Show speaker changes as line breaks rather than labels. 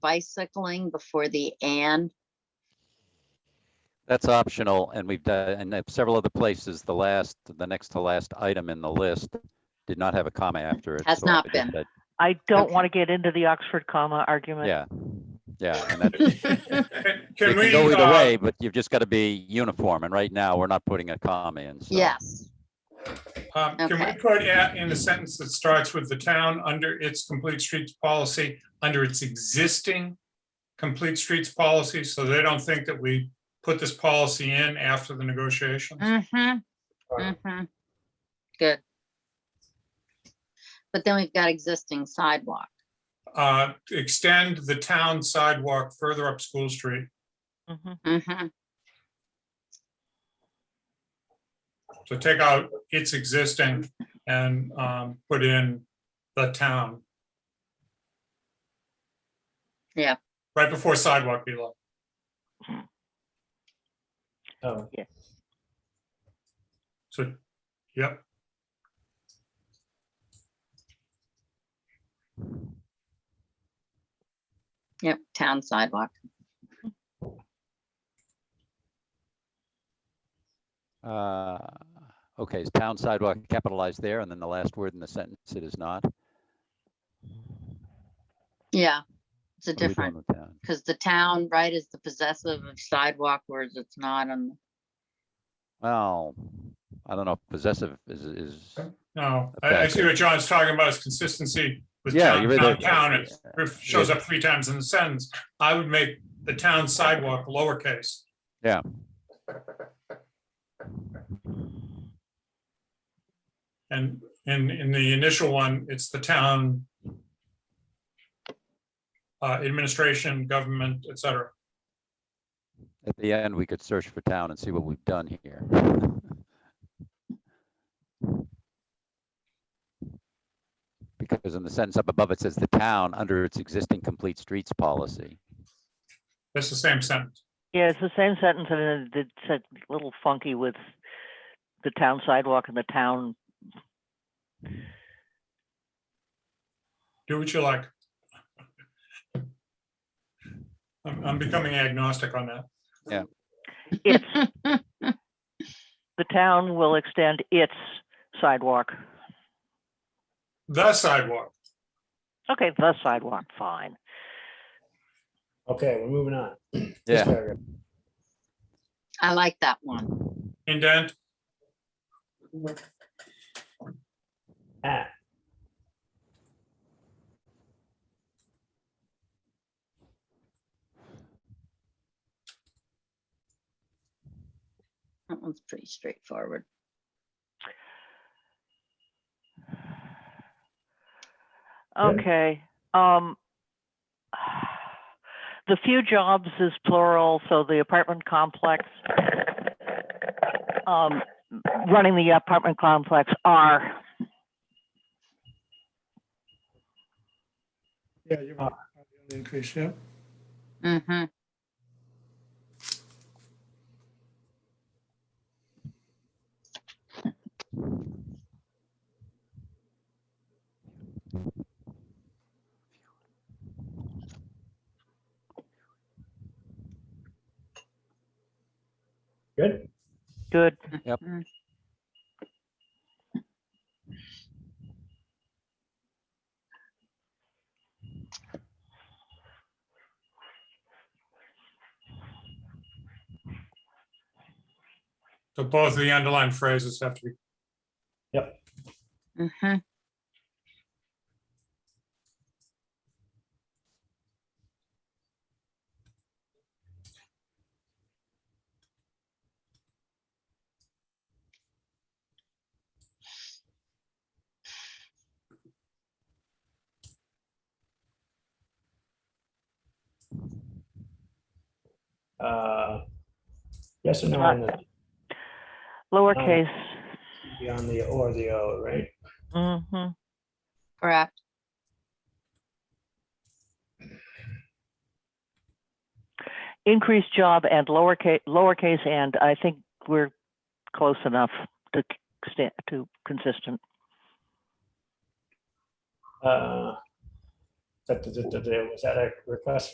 bicycling before the and?
That's optional, and we've done, and at several other places, the last, the next to last item in the list did not have a comma after it.
Has
so I
not
just
been.
said-
I don't
Okay.
want to get into the Oxford comma argument.
Yeah, yeah, and that, it
Can
can
we,
go either
uh,
way, but you've just got to be uniform, and right now, we're not putting a comma in, so.
Yes,
um, can we
Okay.
put at- in the sentence that starts with the town under its complete streets policy, under its existing complete streets policy, so they don't think that we put this policy in after the negotiations?
Mm-hmm,
Right.
mm-hmm. Good. But then we've got existing sidewalk.
Uh, extend the town sidewalk further up School Street
Mhm.
Mm-hmm,
So take out its existing and um, put in the town.
Yeah.
Right before sidewalk, Eli.
Oh,
So, yep.
yep, town sidewalk.
Uh, Okay, is town sidewalk capitalized there, and then the last word in the sentence, it is not? What
Yeah, it's a
are we doing
different,
with town?
because the town, right, is the possessive of sidewalk, whereas it's not on,
Well, I don't know, if possessive is, is,
No, I, I see what John's talking about is consistency with
Yeah,
town,
you're
town,
right
town.
there.
It ref- shows up three times in the sentence. I would make the town sidewalk lowercase.
Yeah.
And in, in the initial one, it's the town uh, administration, government, et cetera.
at the end, we could search for town and see what we've done here. Because in the sentence up above, it says the town under its existing complete streets policy.
That's the same sentence.
Yeah, it's the same sentence and it- it's a little funky with the town sidewalk and the town.
Do what you like. I'm, I'm becoming agnostic on that.
It's, the town will extend its sidewalk.
The sidewalk.
Okay, the sidewalk, fine.
okay, we're moving on. This
Yeah.
paragraph.
I like that one.
Indent,
At,
That one's pretty straightforward.
Yeah.
Okay, um. The few jobs is plural, so the apartment complex. Um, running the apartment complex are,
Yeah, you're right. The Increase, yeah.
Mm-hmm,
good?
good,
so both of the underlying phrases have to be
mm-hmm.
Uh, Yes or no on the,
lowercase.
on the or the O, right?
Mm-hmm.
Correct.
increased job and lowercase, lowercase and, I think we're close enough to sta to consistent.
Uh, da- da- da- da- da, Was that a request